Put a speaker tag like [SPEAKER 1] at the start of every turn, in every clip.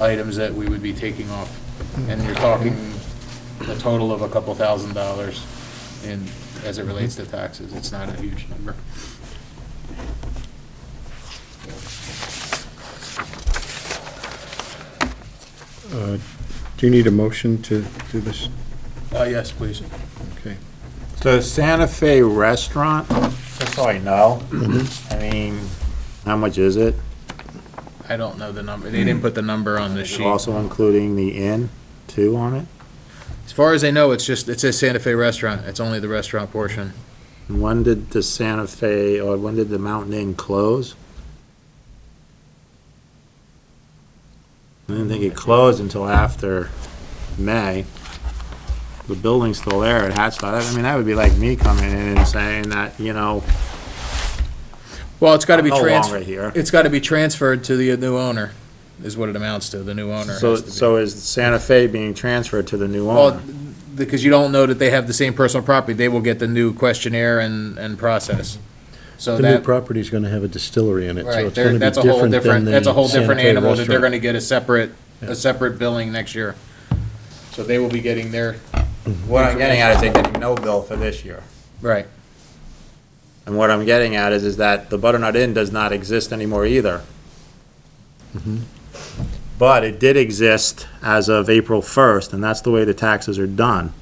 [SPEAKER 1] items that we would be taking off. And you're talking a total of a couple thousand dollars in, as it relates to taxes. It's not a huge number.
[SPEAKER 2] Uh, Do you need a motion to do this?
[SPEAKER 1] Uh, yes, please.
[SPEAKER 2] Okay.
[SPEAKER 3] The Santa Fe restaurant, just so I know,
[SPEAKER 1] Mm-hmm.
[SPEAKER 3] I mean, how much is it?
[SPEAKER 1] I don't know the number. They didn't put the number on the
[SPEAKER 3] Is it
[SPEAKER 1] sheet.
[SPEAKER 3] Also including the inn, too, on it?
[SPEAKER 1] As far as I know, it's just, it says Santa Fe Restaurant. It's only the restaurant portion.
[SPEAKER 3] And When did the Santa Fe, or when did the Mountain Inn close? I didn't think it closed until after May. The building's still there, it has, to- I mean, that would be like me coming in and saying that, you know,
[SPEAKER 1] Well, it's gotta be
[SPEAKER 3] no longer
[SPEAKER 1] transferred,
[SPEAKER 3] here.
[SPEAKER 1] it's gotta be transferred to the new owner, is what it amounts to. The new owner has
[SPEAKER 3] So,
[SPEAKER 1] to be-
[SPEAKER 3] so is Santa Fe being transferred to the new
[SPEAKER 1] Well,
[SPEAKER 3] owner?
[SPEAKER 1] because you don't know that they have the same personal property, they will get the new questionnaire and, and process. So
[SPEAKER 2] The new
[SPEAKER 1] that,
[SPEAKER 2] property's going to have a distillery in it, so
[SPEAKER 1] right,
[SPEAKER 2] it's
[SPEAKER 1] there-
[SPEAKER 2] going to be
[SPEAKER 1] that's a whole
[SPEAKER 2] different than
[SPEAKER 1] different,
[SPEAKER 2] the
[SPEAKER 1] that's a whole
[SPEAKER 2] Santa
[SPEAKER 1] different
[SPEAKER 2] Fe
[SPEAKER 1] animal that they're
[SPEAKER 2] restaurant.
[SPEAKER 1] gonna get a separate,
[SPEAKER 2] Yeah.
[SPEAKER 1] a separate billing next year. So they will be getting their,
[SPEAKER 3] What I'm getting at is they're getting no bill for this year.
[SPEAKER 1] right,
[SPEAKER 3] And what I'm getting at is, is that the Butternut Inn does not exist anymore either. But it did exist as of April 1st, and that's the way the taxes are done.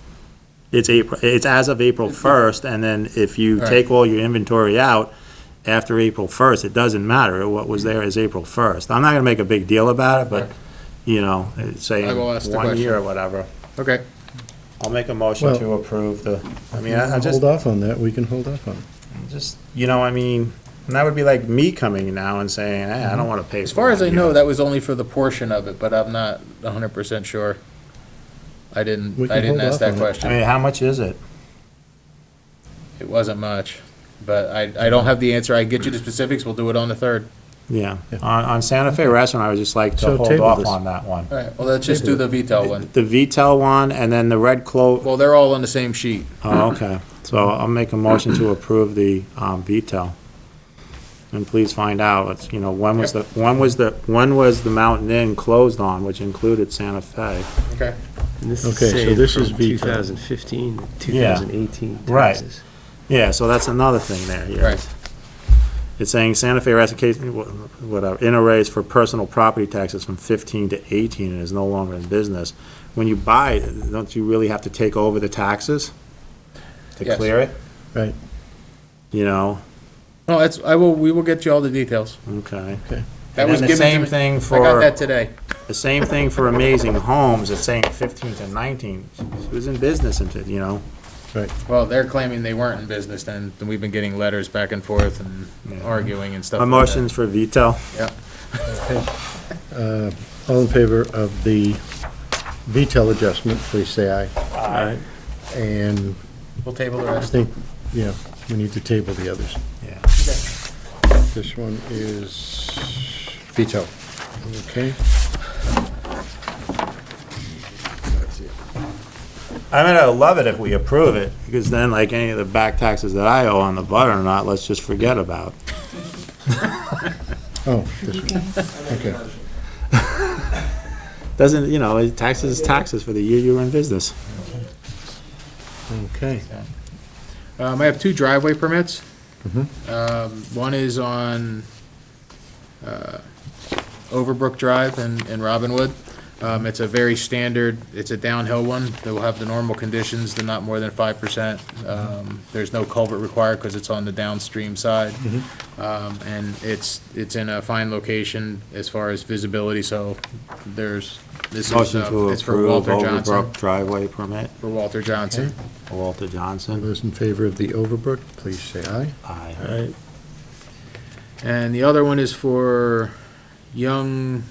[SPEAKER 3] It's April, it's as of April 1st, and then if you
[SPEAKER 1] Right.
[SPEAKER 3] take all your inventory out after April 1st, it doesn't matter. What was there is April 1st. I'm not gonna make a big deal about it, but,
[SPEAKER 1] Right.
[SPEAKER 3] you know, it's saying
[SPEAKER 1] I will ask the
[SPEAKER 3] one
[SPEAKER 1] question.
[SPEAKER 3] year or whatever.
[SPEAKER 1] okay.
[SPEAKER 3] I'll make a motion
[SPEAKER 2] Well-
[SPEAKER 3] to approve the, I
[SPEAKER 2] We
[SPEAKER 3] mean, I I
[SPEAKER 2] can
[SPEAKER 3] just.
[SPEAKER 2] Hold off on that, we can hold off on it.
[SPEAKER 3] Just, you know, I mean, and that would be like me coming now and saying, hey, I don't want to pay.
[SPEAKER 1] Mhm. As far as I know, that was only for the portion of it, but I'm not hundred percent sure. I
[SPEAKER 2] We
[SPEAKER 1] didn't,
[SPEAKER 2] can
[SPEAKER 1] I didn't
[SPEAKER 2] hold
[SPEAKER 1] ask
[SPEAKER 2] off
[SPEAKER 1] that
[SPEAKER 2] on it.
[SPEAKER 3] I
[SPEAKER 1] question.
[SPEAKER 3] mean, how much is it?
[SPEAKER 1] It wasn't much, but I, I don't have the answer. I can get you the specifics, we'll do it on the third.
[SPEAKER 3] Yeah,
[SPEAKER 2] Yeah.
[SPEAKER 3] on, on Santa Fe Restaurant, I would just like to
[SPEAKER 2] So
[SPEAKER 3] hold
[SPEAKER 2] table
[SPEAKER 3] off
[SPEAKER 2] this.
[SPEAKER 3] on that one.
[SPEAKER 1] All right, well, let's just do the veto one.
[SPEAKER 3] The VTEL one and then the Red Clover,
[SPEAKER 1] Well, they're all on the same sheet.
[SPEAKER 3] oh, okay. So I'll make a motion to approve the, um, VTEL. And please find out, it's, you know, when was the, when was the, when was the Mountain Inn closed on, which included Santa Fe?
[SPEAKER 1] Okay.
[SPEAKER 4] This
[SPEAKER 2] Okay, so
[SPEAKER 4] saved
[SPEAKER 2] this
[SPEAKER 4] from
[SPEAKER 2] is veto.
[SPEAKER 4] 2015, to
[SPEAKER 3] Yeah.
[SPEAKER 4] 2018
[SPEAKER 3] Right.
[SPEAKER 4] taxes.
[SPEAKER 3] Yeah, so that's another thing there, yeah.
[SPEAKER 1] Right.
[SPEAKER 3] It's saying Santa Fe Rest Case, whatever, uh, in arrays for personal property taxes from fifteen to eighteen and is no longer in business. When you buy, it, don't you really have to take over the taxes? To
[SPEAKER 1] Yes.
[SPEAKER 3] clear it?
[SPEAKER 2] Right.
[SPEAKER 3] You know,
[SPEAKER 1] No, that's, I will, we will get you all the details.
[SPEAKER 3] okay.
[SPEAKER 1] That
[SPEAKER 3] And
[SPEAKER 1] was
[SPEAKER 3] then the
[SPEAKER 1] given to
[SPEAKER 3] same
[SPEAKER 1] me.
[SPEAKER 3] thing
[SPEAKER 1] I got
[SPEAKER 3] for,
[SPEAKER 1] that today.
[SPEAKER 3] the same thing for Amazing Homes, it's saying fifteen to nineteen. She was in business until, you know,
[SPEAKER 1] Well, they're claiming they weren't in business then, and we've been getting letters back and forth and arguing and stuff
[SPEAKER 3] my
[SPEAKER 1] like that.
[SPEAKER 3] motion's for veto.
[SPEAKER 2] Uh, All in favor of the VTEL adjustment, please say aye.
[SPEAKER 3] Aye.
[SPEAKER 2] And
[SPEAKER 1] We'll table the
[SPEAKER 2] I
[SPEAKER 1] rest.
[SPEAKER 2] think, yeah, we need to table the others.
[SPEAKER 3] Yeah.
[SPEAKER 2] This one is veto. Okay,
[SPEAKER 3] I mean, I love it if we approve it, because then like any of the back taxes that I owe on the butter or not, let's just forget about.
[SPEAKER 2] oh, this one, okay.
[SPEAKER 3] Doesn't, you know, taxes is taxes for the year you were in business.
[SPEAKER 2] Okay.
[SPEAKER 1] Um, I have two driveway permits.
[SPEAKER 3] Mm-hmm.
[SPEAKER 1] Um, one is on, uh, Overbrook Drive in, in Robinwood. Um, it's a very standard, it's a downhill one, they will have the normal conditions, they're not more than five percent.
[SPEAKER 3] Mm-hmm.
[SPEAKER 1] Um, there's no culvert required because it's on the downstream side.
[SPEAKER 3] Mm-hmm.
[SPEAKER 1] Um, and it's, it's in a fine location as far as visibility, so there's, this is,
[SPEAKER 3] Motion to
[SPEAKER 1] uh, it's for
[SPEAKER 3] approve
[SPEAKER 1] Walter Johnson,
[SPEAKER 3] Overbrook driveway permit,
[SPEAKER 1] for Walter Johnson.
[SPEAKER 3] Walter Johnson.
[SPEAKER 2] Those in favor of the Overbrook, please say aye.
[SPEAKER 1] Uh,
[SPEAKER 3] Aye.
[SPEAKER 1] And the other one is for Young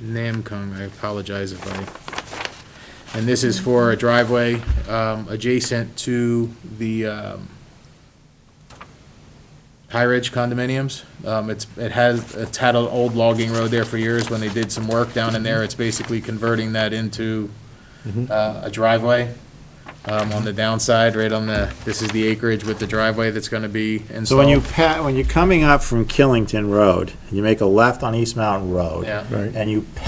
[SPEAKER 1] Namkung, I apologize if I, and this is for a driveway um, adjacent to the um, High Ridge condominiums. Um, It's, it has, it's had an old logging road there for years when they did some work down in there. It's basically converting that into
[SPEAKER 3] Mm-hmm.
[SPEAKER 1] uh, a driveway um, on the downside, right on the, this is the acreage with the driveway that's going to be installed.
[SPEAKER 3] So when you pa, when you're coming up from Killington Road, and you make a left on East Mountain Road.
[SPEAKER 1] Yeah.
[SPEAKER 2] Right.
[SPEAKER 3] And you